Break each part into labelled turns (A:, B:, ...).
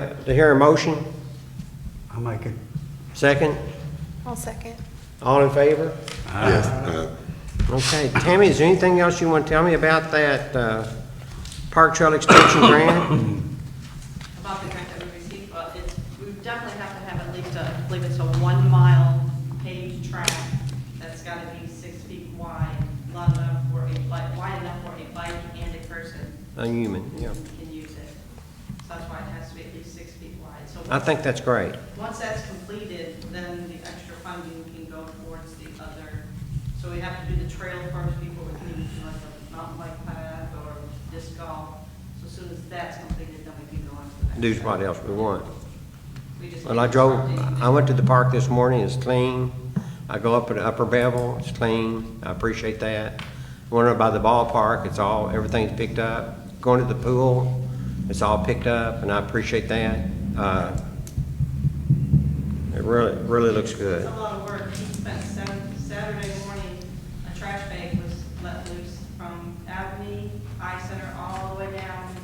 A: To hear a motion?
B: I'll make it.
A: Second?
C: I'll second.
A: All in favor?
D: Yes. uh,
A: Okay, Tammy, is there anything else you want to tell me about that uh, Park Trail Extension Grant?
E: about the grant that we received, but it's, we definitely have to have at least a, I believe it's a one-mile paved track that's gotta be six feet wide, long enough for a bike, wide enough for a bike and a person
A: A human, Uh, yeah.
E: can use it. So that's why it has to be at least six feet wide. So
A: I think that's great.
E: once that's completed, then the extra funding can go towards the other. So we have to do the trail first before we can even do like a mountain bike path or disc golf. So as soon as that's completed, then we can go on to the next.
A: Do
E: step.
A: what else we want.
E: We just
A: Well, I
E: need
A: drove,
E: something
A: I went to the park this morning, it's clean. I go up to Upper Bevel, it's clean, I appreciate that. Went up by the ballpark, it's all, everything's picked up. Going to the pool, it's all picked up, and I appreciate that. Uh, It really, really looks
E: It's
A: good.
E: a lot of work. He spent Sat- Saturday morning, a trash bag was let loose from Avenue, High Center, all the way down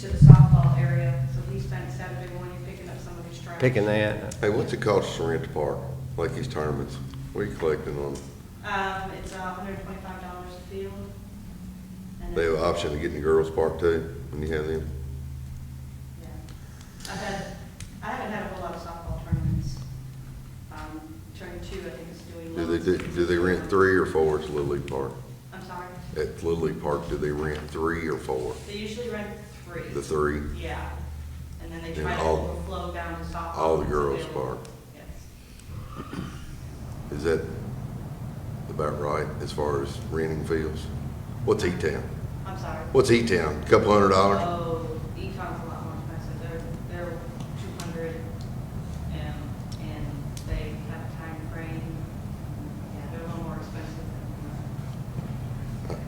E: to the softball area. So he spent Saturday morning picking up somebody's trash.
A: Picking that,
D: Hey, what's it cost to rent a park, like these tournaments? What are you collecting on?
E: Um, it's a hundred and twenty-five dollars a field. And
D: They have an
E: it's-
D: option of getting the girls' park too, when you have them?
E: Yeah. I've had, I haven't had a whole lot of softball tournaments. Um, turn two, I think is doing.
D: Do they,
E: loads.
D: do do they rent three or four at Little League Park?
E: I'm sorry.
D: At Little League Park, do they rent three or four?
E: They usually rent three.
D: The three?
E: Yeah, and then they
D: And
E: try to
D: all-
E: overflow down to softball.
D: all the
E: once
D: girls'
E: available.
D: park.
E: Yes.
D: Is that about right as far as renting fields? What's E-Town?
E: I'm sorry.
D: What's E-Town? Couple hundred dollars?
E: Oh, Econ's a lot more expensive, they're, they're two hundred, and, and they have a time frame. Yeah, they're a little more expensive than,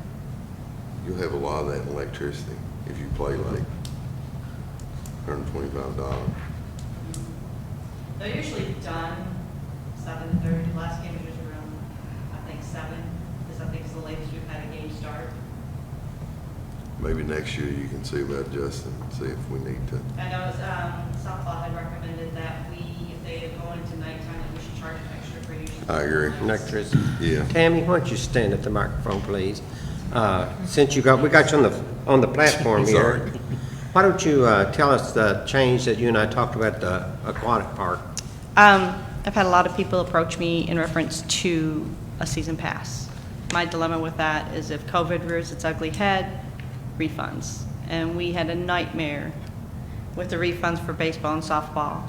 D: You'll have a lot of that in electricity if you play like hundred and twenty-five dollars.
E: uh, they're usually done seven thirty, last game was around, I think, seven, is I think is the latest we've had a game start.
D: Maybe next year you can see about Justin, see if we need to.
E: I know um, softball had recommended that we, if they go into nighttime, that we should charge extra for using.
D: I agree.
A: yeah, electricity.
D: Yeah.
A: Tammy, why don't you stand at the microphone, please? Uh, Since you got, we got you on the, on the platform
D: Sorry.
A: here. Why don't you uh, tell us the change that you and I talked about at the aquatic park?
F: Um, I've had a lot of people approach me in reference to a season pass. My dilemma with that is if COVID rears its ugly head, refunds. And we had a nightmare with the refunds for baseball and softball.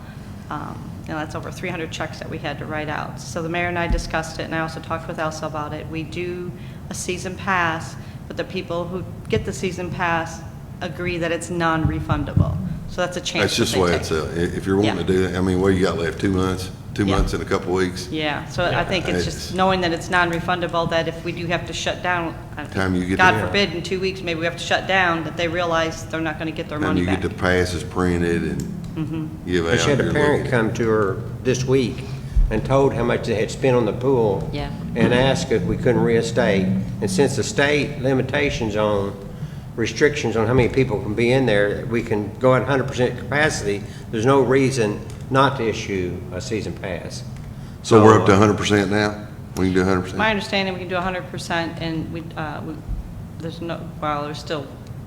F: Um, and that's over 300 checks that we had to write out. So the mayor and I discussed it, and I also talked with Elsa about it. We do a season pass, but the people who get the season pass agree that it's non-refundable. So that's a chance.
D: That's just
F: that
D: the
F: they
D: way
F: take.
D: it's, uh, i- if you're wanting to
F: Yeah.
D: do that, I mean, what you got left, two months? Two
F: Yeah.
D: months and a couple weeks?
F: Yeah, so I think it's
D: It's-
F: just knowing that it's non-refundable, that if we do have to shut down, I-
D: Time you get
F: God
D: to-
F: forbid, in two weeks, maybe we have to shut down, that they realize they're not going to get their
D: And
F: money
D: you get
F: back. Mm-hmm.
D: the passes printed and give out.
A: She had a
D: your
A: parent
D: little-
A: come to her this week and told how much they had spent on the pool.
F: Yeah.
A: And asked if we couldn't reinstate. And since the state limitations on, restrictions on how many people can be in there, we can go at hundred percent capacity, there's no reason not to issue a season pass.
D: So we're up to
A: uh,
D: hundred percent now? We can do hundred
F: My
D: percent?
F: understanding, we can do 100%, and we, uh, we- there's no, well, there's still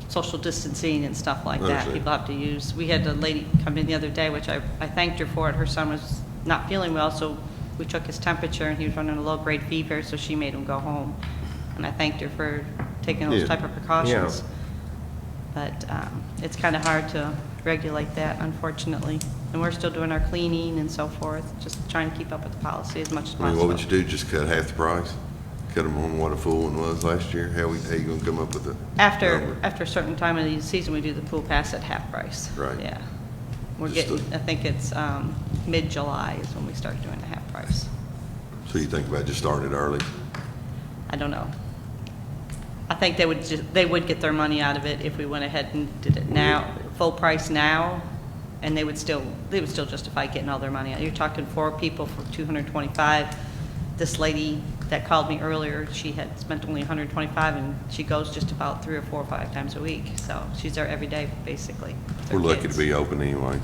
F: social distancing and stuff like that.
D: Understand.
F: People have to use, we had a lady come in the other day, which I, I thanked her for it, her son was not feeling well, so we took his temperature, and he was running a low-grade fever, so she made him go home. And I thanked her for taking
D: Yeah.
F: those type of precautions. But um, it's kind of hard to regulate that, unfortunately. And we're still doing our cleaning and so forth, just trying to keep up with the policy as much
D: I
F: as
D: mean,
F: possible.
D: what would you do? Just cut half the price? Cut them on what a full one was last year? How we, how you gonna come up with a?
F: After,
D: number?
F: after a certain time of the season, we do the pool pass at half price.
D: Right.
F: Yeah. We're
D: Just
F: getting,
D: the-
F: I think it's um, mid-July is when we start doing the half price.
D: So you think about just starting it early?
F: I don't know. I think they would, ju- they would get their money out of it if we went ahead and did it now, full price now, and they would still, they would still justify getting all their money out. You're talking four people for 225. This lady that called me earlier, she had spent only 125, and she goes just about three or four or five times a week, so she's there every day, basically. with her
D: We're lucky
F: kids.
D: to be open anyways.